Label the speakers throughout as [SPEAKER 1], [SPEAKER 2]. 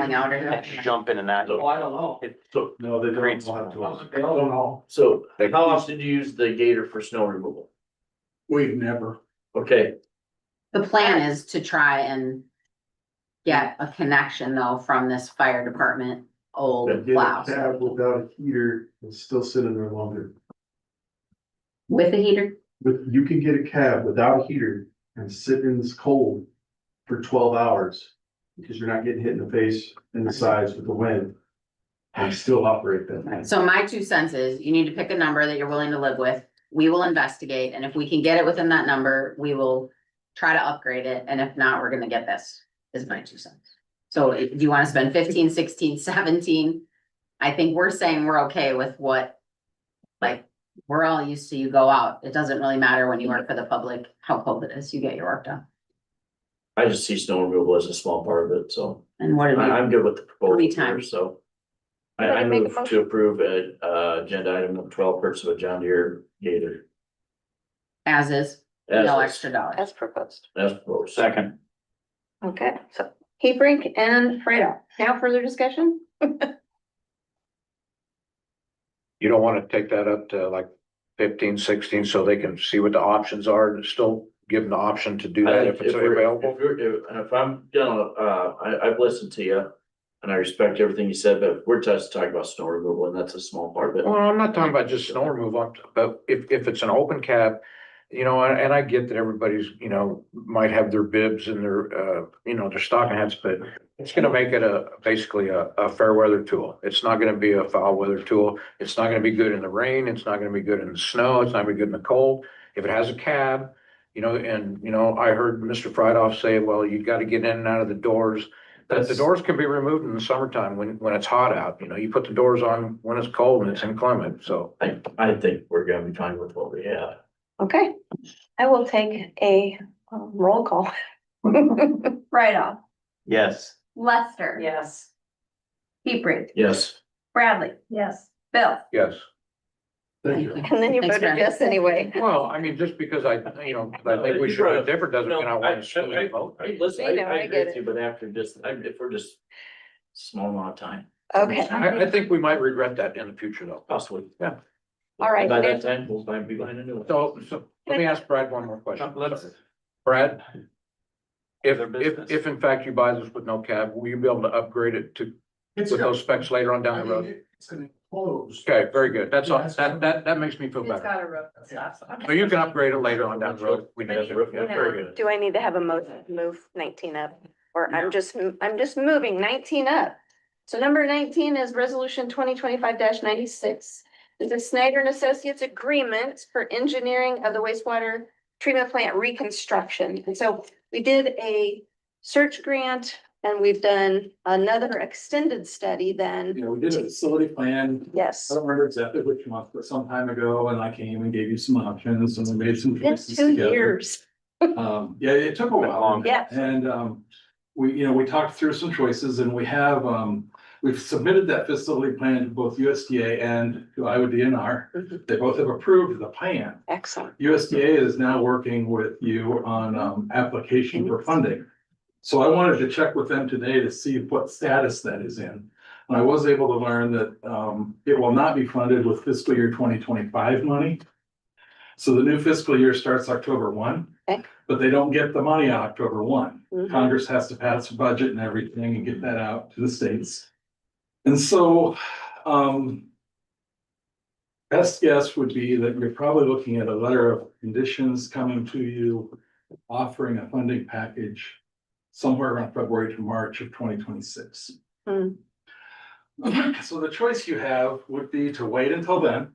[SPEAKER 1] going out or
[SPEAKER 2] I
[SPEAKER 1] not.
[SPEAKER 2] should jump into that.
[SPEAKER 3] Oh, I don't know.
[SPEAKER 4] So, no, they
[SPEAKER 2] Great.
[SPEAKER 4] don't know how to. do it.
[SPEAKER 3] They don't know.
[SPEAKER 5] So
[SPEAKER 6] That
[SPEAKER 5] how
[SPEAKER 6] keeps-
[SPEAKER 5] often do you use the gator for snow removal?
[SPEAKER 4] We've never,
[SPEAKER 5] Okay,
[SPEAKER 1] The plan is to try and get a connection though from this fire department
[SPEAKER 4] been
[SPEAKER 1] old
[SPEAKER 4] getting
[SPEAKER 1] plow
[SPEAKER 4] tab without a heater and still sitting there longer.
[SPEAKER 1] with a heater.
[SPEAKER 4] But you can get a cab without a heater and sit in this cold for twelve hours. Because you're not getting hit in the face and the sides with the wind. And still operate that thing.
[SPEAKER 1] So my two cents is you need to pick a number that you're willing to live with. We will investigate and if we can get it within that number, we will try to upgrade it. And if not, we're gonna get this is my two cents. So if you wanna spend 15, 16, 17, I think we're saying we're okay with what like, we're all used to you go out. It doesn't really matter when you work for the public, how cold it is, you get your work done.
[SPEAKER 5] I just see snow removal as a small part of it, so
[SPEAKER 1] And what
[SPEAKER 5] I,
[SPEAKER 1] do we,
[SPEAKER 5] I'm good with the proposal
[SPEAKER 1] Three times.
[SPEAKER 5] here, so. I,
[SPEAKER 2] Gotta
[SPEAKER 5] I
[SPEAKER 2] make a
[SPEAKER 5] move to approve a, uh, agenda item of twelve purchase of a John Deere gator.
[SPEAKER 1] as is,
[SPEAKER 5] As
[SPEAKER 1] no
[SPEAKER 5] is-
[SPEAKER 1] extra dollars.
[SPEAKER 2] As proposed.
[SPEAKER 5] As proposed.
[SPEAKER 2] Second.
[SPEAKER 7] Okay, so Hebrink and Fredo. Now further discussion?
[SPEAKER 6] You don't wanna take that up to like fifteen, sixteen, so they can see what the options are and still give them the option to do that if it's
[SPEAKER 5] we're-
[SPEAKER 6] available?
[SPEAKER 5] If you're, if- if I'm gonna, uh, I, I've listened to you and I respect everything you said, but we're just talking about snow removal and that's a small part of it.
[SPEAKER 6] Well, I'm not talking about just snow removal, but if, if it's an open cab, you know, and and I get that everybody's, you know, might have their bibs and their, uh, you know, their stocking hats, but it's gonna make it a, basically a, a fair weather tool. It's not gonna be a foul weather tool. It's not gonna be good in the rain. It's not gonna be good in the snow. It's not gonna be good in the cold. If it has a cab, you know, and, you know, I heard Mr. Friedhoff say, well, you gotta get in and out of the doors. That the
[SPEAKER 5] That's-
[SPEAKER 6] doors can be removed in the summertime when, when it's hot out, you know, you put the doors on when it's cold and it's inclement, so.
[SPEAKER 5] I, I think we're gonna be fine with what we have.
[SPEAKER 7] Okay, I will take a um, roll call.
[SPEAKER 8] Right off.
[SPEAKER 2] Yes.
[SPEAKER 8] Lester.
[SPEAKER 7] Yes.
[SPEAKER 8] Hebrink.
[SPEAKER 5] Yes.
[SPEAKER 8] Bradley. Yes. Bill.
[SPEAKER 6] Yes,
[SPEAKER 4] Thank you.
[SPEAKER 7] And then you
[SPEAKER 1] Thanks,
[SPEAKER 7] voted
[SPEAKER 1] Brad.
[SPEAKER 7] yes anyway.
[SPEAKER 6] well, I mean, just because I, you know, I think we should have different doesn't mean I want to sue the vote.
[SPEAKER 5] Hey, listen,
[SPEAKER 7] I
[SPEAKER 5] I,
[SPEAKER 7] know,
[SPEAKER 5] I
[SPEAKER 7] I
[SPEAKER 5] agree
[SPEAKER 7] get
[SPEAKER 5] with
[SPEAKER 7] it.
[SPEAKER 5] you, but after just, I, if we're just small amount of time,
[SPEAKER 7] Okay,
[SPEAKER 6] I, I think we might regret that in the future though.
[SPEAKER 5] possibly.
[SPEAKER 6] Yeah.
[SPEAKER 7] all right.
[SPEAKER 5] By
[SPEAKER 7] there's-
[SPEAKER 5] that time, we'll find, be behind a new one.
[SPEAKER 6] So, so let me ask Brad one more question.
[SPEAKER 2] Let's,
[SPEAKER 6] Brad? If,
[SPEAKER 2] Other business.
[SPEAKER 6] if, if in fact you buy this with no cab, will you be able to upgrade it to,
[SPEAKER 4] It's,
[SPEAKER 6] with
[SPEAKER 4] got-
[SPEAKER 6] those specs later on
[SPEAKER 4] I
[SPEAKER 6] down the road?
[SPEAKER 4] mean, it's an enclosed.
[SPEAKER 6] Okay, very good. That's all, that, that, that makes me feel better.
[SPEAKER 8] a roof that stops on
[SPEAKER 6] So you can upgrade it later on down the road. if We
[SPEAKER 5] Has
[SPEAKER 6] need
[SPEAKER 5] a roof, yeah,
[SPEAKER 6] to.
[SPEAKER 5] very good.
[SPEAKER 7] Do I need to have a motion to move nineteen up? Or I'm just, I'm just moving nineteen up. So number nineteen is resolution twenty twenty-five ninety-six. This is Snyder and Associates Agreement for Engineering of the Wastewater Treatment Plant Reconstruction. And so we did a search grant and we've done another extended study then.
[SPEAKER 3] You know, we did a facility plan.
[SPEAKER 7] Yes.
[SPEAKER 3] I don't remember exactly which month, but some time ago, and I came and gave you some options and we made some
[SPEAKER 7] It's
[SPEAKER 3] choices
[SPEAKER 7] two
[SPEAKER 3] together.
[SPEAKER 7] years.
[SPEAKER 3] Um, yeah, it took a
[SPEAKER 2] Been
[SPEAKER 3] while.
[SPEAKER 2] long.
[SPEAKER 7] Yeah.
[SPEAKER 3] And, um, we, you know, we talked through some choices and we have, um, we've submitted that facility plan to both USDA and to Iowa DNR.
[SPEAKER 7] Mhm.
[SPEAKER 3] They both have approved the plan.
[SPEAKER 7] Excellent.
[SPEAKER 3] USDA is now working with you on um application for funding. So I wanted to check with them today to see what status that is in. And I was able to learn that um it will not be funded with fiscal year twenty twenty-five money. So the new fiscal year starts October one,
[SPEAKER 7] Okay.
[SPEAKER 3] but they don't get the money on October one.
[SPEAKER 7] Mhm.
[SPEAKER 3] Congress has to pass a budget and everything and get that out to the states. And so, um. Best guess would be that you're probably looking at a letter of conditions coming to you, offering a funding package. Somewhere around February to March of twenty twenty-six.
[SPEAKER 7] Hmm.
[SPEAKER 3] So the choice you have would be to wait until then.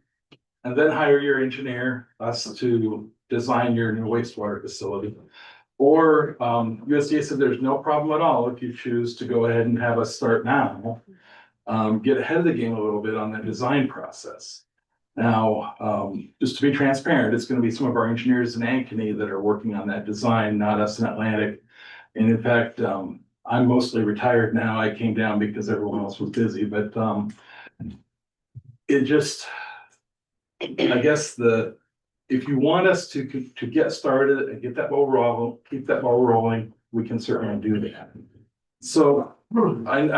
[SPEAKER 3] And then hire your engineer, us to design your new wastewater facility. Or um USDA said there's no problem at all if you choose to go ahead and have us start now. Um, get ahead of the game a little bit on the design process. Now, um, just to be transparent, it's gonna be some of our engineers in Ankeny that are working on that design, not us in Atlantic. And in fact, um, I'm mostly retired now. I came down because everyone else was busy, but, um, it just, I guess the, if you want us to, to get started and get that ball rolling, keep that ball rolling, we can certainly do that. So I,